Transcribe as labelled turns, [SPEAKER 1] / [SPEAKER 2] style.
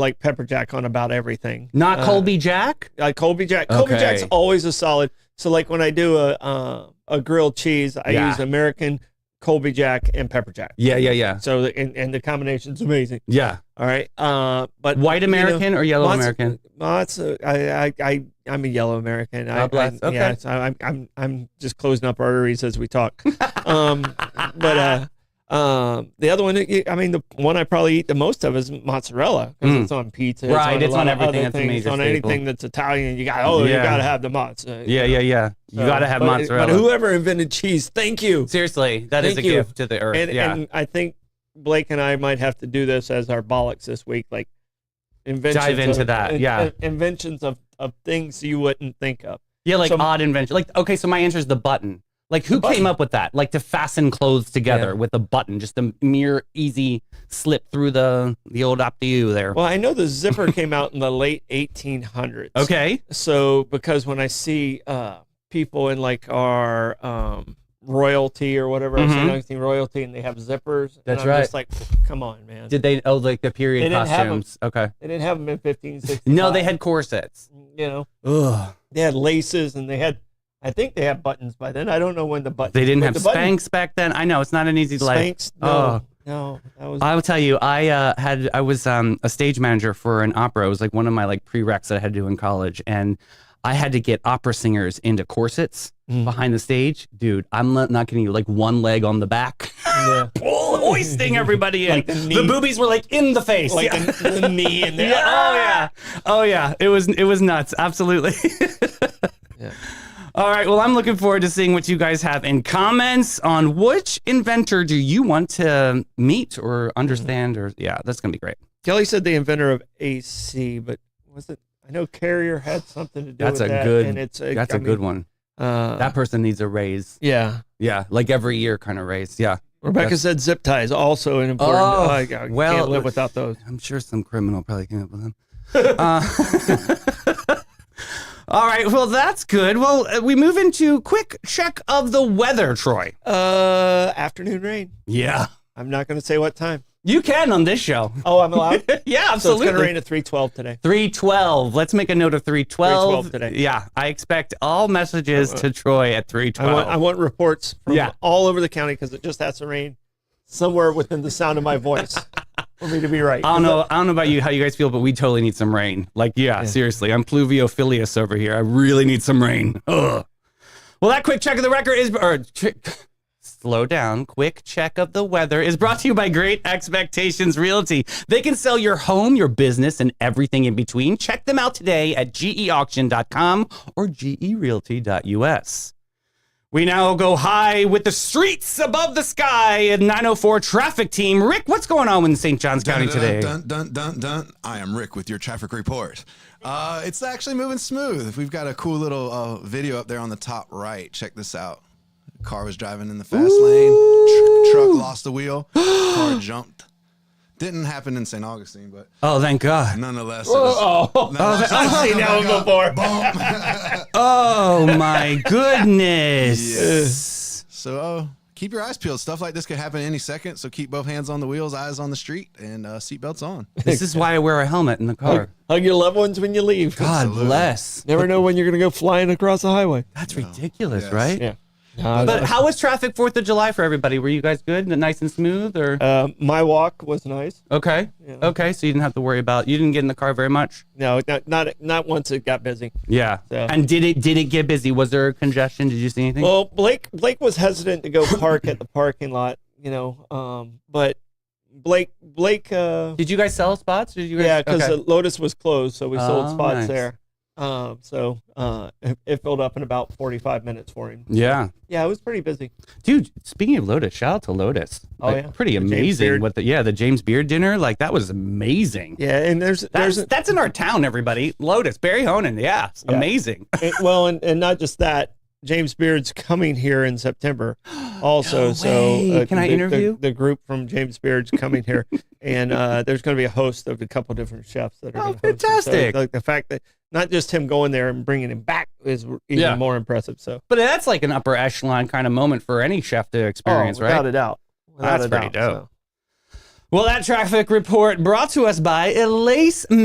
[SPEAKER 1] like pepper jack on about everything.
[SPEAKER 2] Not
[SPEAKER 1] Uh,
[SPEAKER 2] Colby Jack.
[SPEAKER 1] Like Colby Jack. Colby
[SPEAKER 2] Okay.
[SPEAKER 1] Jack's always a solid. So like when I do a uh, a grilled cheese, I
[SPEAKER 2] Yeah.
[SPEAKER 1] use American Colby Jack and pepper jack.
[SPEAKER 2] Yeah, yeah, yeah,
[SPEAKER 1] So the, and, and the combination's amazing.
[SPEAKER 2] yeah.
[SPEAKER 1] All right. Uh, but
[SPEAKER 2] White
[SPEAKER 1] you know,
[SPEAKER 2] American or yellow
[SPEAKER 1] lots-
[SPEAKER 2] American?
[SPEAKER 1] No, it's a, I, I, I, I'm a yellow American. I,
[SPEAKER 2] God bless.
[SPEAKER 1] I,
[SPEAKER 2] Okay.
[SPEAKER 1] Yeah, so I'm, I'm, I'm just closing up arteries as we talk. um,
[SPEAKER 2] Ah.
[SPEAKER 1] but uh, um, the other one, you- I mean, the one I probably eat the most of is mozzarella 'cause
[SPEAKER 2] Mm.
[SPEAKER 1] it's on pizza.
[SPEAKER 2] Right,
[SPEAKER 1] a
[SPEAKER 2] it's
[SPEAKER 1] lot
[SPEAKER 2] on
[SPEAKER 1] of
[SPEAKER 2] everything.
[SPEAKER 1] other
[SPEAKER 2] That's a
[SPEAKER 1] things,
[SPEAKER 2] major
[SPEAKER 1] on
[SPEAKER 2] staple.
[SPEAKER 1] anything that's Italian. You got, oh,
[SPEAKER 2] Yeah.
[SPEAKER 1] you got to have the mozzarella.
[SPEAKER 2] Yeah, yeah, yeah. You
[SPEAKER 1] So,
[SPEAKER 2] gotta have
[SPEAKER 1] but,
[SPEAKER 2] mozzarella.
[SPEAKER 1] But whoever invented cheese, thank you.
[SPEAKER 2] Seriously, that is
[SPEAKER 1] Thank
[SPEAKER 2] a
[SPEAKER 1] you.
[SPEAKER 2] gift to the earth.
[SPEAKER 1] And,
[SPEAKER 2] yeah.
[SPEAKER 1] and I think Blake and I might have to do this as our bollocks this week, like inventions.
[SPEAKER 2] Dive into
[SPEAKER 1] of-
[SPEAKER 2] that, yeah.
[SPEAKER 1] in- inventions of, of things you wouldn't think of.
[SPEAKER 2] yeah, like
[SPEAKER 1] so-
[SPEAKER 2] odd invention. Like, okay, so my answer is the button. Like, who
[SPEAKER 1] button.
[SPEAKER 2] came up with that? Like, to fasten clothes together
[SPEAKER 1] Yeah.
[SPEAKER 2] with a button, just a mere easy slip through the the old optiu there.
[SPEAKER 1] Well, I know the zipper came out in the late 1800s.
[SPEAKER 2] okay.
[SPEAKER 1] So because when I see uh, people in like our um, royalty or whatever, I see
[SPEAKER 2] Mhm.
[SPEAKER 1] Lansing royalty, and they have zippers. and
[SPEAKER 2] That's
[SPEAKER 1] I'm Just like, come on, man.
[SPEAKER 2] Did they? Oh, like the period
[SPEAKER 1] They didn't have Uh, 'em.
[SPEAKER 2] costumes. Okay.
[SPEAKER 1] they didn't have them in 1560.
[SPEAKER 2] No, they had corsets.
[SPEAKER 1] You know,
[SPEAKER 2] Ugh.
[SPEAKER 1] they had laces, and they had. I think they had buttons by then. I don't know when the buttons.
[SPEAKER 2] They didn't
[SPEAKER 1] but
[SPEAKER 2] have
[SPEAKER 1] the button-
[SPEAKER 2] Spanx back then. I know it's not an easy life.
[SPEAKER 1] Spanx. No,
[SPEAKER 2] Oh.
[SPEAKER 1] no, that was.
[SPEAKER 2] I will tell you, I uh, had I was um, a stage manager for an opera. It was like one of my like prereqs that I had to do in college, and I had to get opera singers into corsets
[SPEAKER 1] Mm.
[SPEAKER 2] behind the stage. Dude, I'm not, not kidding you. Like one leg on the back,
[SPEAKER 1] Yeah.
[SPEAKER 2] pull, hoisting everybody in.
[SPEAKER 1] Like the
[SPEAKER 2] the,
[SPEAKER 1] knee.
[SPEAKER 2] boobies were like in the face.
[SPEAKER 1] Like
[SPEAKER 2] yeah.
[SPEAKER 1] the, the knee and the
[SPEAKER 2] Yeah, Oh yeah. Oh yeah. It was it was nuts. Absolutely.
[SPEAKER 1] Yeah.
[SPEAKER 2] All right. Well, I'm looking forward to seeing what you guys have in comments on which inventor do you want to meet or understand or yeah, that's gonna be great.
[SPEAKER 1] Kelly said the inventor of AC, but was it? I know Carrier had something to do
[SPEAKER 2] That's
[SPEAKER 1] with
[SPEAKER 2] a
[SPEAKER 1] that.
[SPEAKER 2] good-
[SPEAKER 1] And it's a,
[SPEAKER 2] That's a
[SPEAKER 1] a
[SPEAKER 2] good one.
[SPEAKER 1] Uh,
[SPEAKER 2] That person needs a raise.
[SPEAKER 1] yeah.
[SPEAKER 2] Yeah, like every year kind of raise. Yeah.
[SPEAKER 1] Rebecca
[SPEAKER 2] That's-
[SPEAKER 1] said zip ties also an important.
[SPEAKER 2] Oh,
[SPEAKER 1] I- I
[SPEAKER 2] well-
[SPEAKER 1] can't live without those.
[SPEAKER 2] I'm sure some criminal probably came up with them. Uh, all right. Well, that's good. Well, uh, we move into quick check of the weather, Troy.
[SPEAKER 1] Uh, afternoon rain.
[SPEAKER 2] Yeah.
[SPEAKER 1] I'm not going to say what time.
[SPEAKER 2] You can on this show.
[SPEAKER 1] Oh, I'm allowed.
[SPEAKER 2] yeah,
[SPEAKER 1] so it's
[SPEAKER 2] absolutely.
[SPEAKER 1] going to rain at 3:12 today.
[SPEAKER 2] 312. Let's make a note of 312.
[SPEAKER 1] 312 today.
[SPEAKER 2] Yeah, I expect all messages to Troy at
[SPEAKER 1] I
[SPEAKER 2] 312.
[SPEAKER 1] want I want reports from
[SPEAKER 2] Yeah.
[SPEAKER 1] all over the county because it just has to rain somewhere within the sound of my voice for me to be right.
[SPEAKER 2] I don't know. I don't know about you, how you guys feel, but we totally need some rain. Like, yeah, seriously, I'm pluviophilus over here. I really need some rain. Ugh. Well, that quick check of the record is, or ch- slow down. Quick check of the weather is brought to you by Great Expectations Realty. They can sell your home, your business, and everything in between. Check them out today at geauction.com or gerealty.us. We now go high with the streets above the sky at 904 traffic team. Rick, what's going on in St. Johns County today?
[SPEAKER 3] Dun, dun, dun, dun. I am Rick with your traffic report. Uh, it's actually moving smooth. We've got a cool little uh, video up there on the top right. Check this out. Car was driving in the fast lane. Tr- truck lost the wheel. Car jumped. Didn't happen in St. Augustine, but
[SPEAKER 2] Oh, thank God.
[SPEAKER 3] nonetheless. It was, nonetheless,
[SPEAKER 1] I've seen that one before.
[SPEAKER 2] Oh, my goodness.
[SPEAKER 3] so uh, keep your eyes peeled. Stuff like this could happen any second. So keep both hands on the wheels, eyes on the street, and uh, seatbelts on.
[SPEAKER 2] This is why I wear a helmet in the car.
[SPEAKER 3] Oh,
[SPEAKER 1] Hug your loved ones when you leave.
[SPEAKER 2] God bless.
[SPEAKER 1] Never know when you're going to go flying across the highway.
[SPEAKER 2] That's ridiculous,
[SPEAKER 3] Yes.
[SPEAKER 2] right?
[SPEAKER 1] Yeah.
[SPEAKER 2] But how was traffic 4th of July for everybody? Were you guys good? Nice and smooth or
[SPEAKER 1] Uh, my walk was nice.
[SPEAKER 2] Okay. Okay, so you didn't have to worry about you didn't get in the car very much.
[SPEAKER 1] No, not not, not once it got busy.
[SPEAKER 2] Yeah.
[SPEAKER 1] So-
[SPEAKER 2] And did it did it get busy? Was there congestion? Did you see anything?
[SPEAKER 1] Well, Blake Blake was hesitant to go park at the parking lot, you know, um, but Blake Blake, uh,
[SPEAKER 2] did you guys sell spots? Did you guys,
[SPEAKER 1] yeah, because
[SPEAKER 2] okay.
[SPEAKER 1] Lotus was closed, so we sold
[SPEAKER 2] Oh,
[SPEAKER 1] spots
[SPEAKER 2] nice.
[SPEAKER 1] there. Um, so uh, it, it filled up in about 45 minutes for him.
[SPEAKER 2] yeah.
[SPEAKER 1] Yeah, it was pretty busy.
[SPEAKER 2] Dude, speaking of Lotus, shout out to Lotus.
[SPEAKER 1] Oh,
[SPEAKER 2] Like,
[SPEAKER 1] yeah.
[SPEAKER 2] Pretty
[SPEAKER 1] The James
[SPEAKER 2] amazing
[SPEAKER 1] Beard.
[SPEAKER 2] what the yeah, the James Beard dinner, like that was amazing.
[SPEAKER 1] Yeah, and there's
[SPEAKER 2] That's,
[SPEAKER 1] there's a-
[SPEAKER 2] that's in our town, everybody. Lotus, Barry Honan. Yeah, it's
[SPEAKER 1] Yeah.
[SPEAKER 2] amazing.
[SPEAKER 1] and- well, and, and not just that. James Beard's coming here in September, also.
[SPEAKER 2] No
[SPEAKER 1] so uh,
[SPEAKER 2] way. Can I
[SPEAKER 1] the- the-
[SPEAKER 2] interview?
[SPEAKER 1] the, group from James Beard's coming here, and uh, there's going to be a host of a couple different chefs that are.
[SPEAKER 2] Oh,
[SPEAKER 1] gonna host him. So,
[SPEAKER 2] fantastic.
[SPEAKER 1] like the fact that not just him going there and bringing him back is even
[SPEAKER 2] Yeah.
[SPEAKER 1] more impressive. So,
[SPEAKER 2] But that's like an upper echelon kind of moment for any chef to experience,
[SPEAKER 1] oh,
[SPEAKER 2] right?
[SPEAKER 1] without a doubt, Without
[SPEAKER 2] That's
[SPEAKER 1] a
[SPEAKER 2] pretty
[SPEAKER 1] doubt,
[SPEAKER 2] dope. Well, that traffic report brought to us by Elise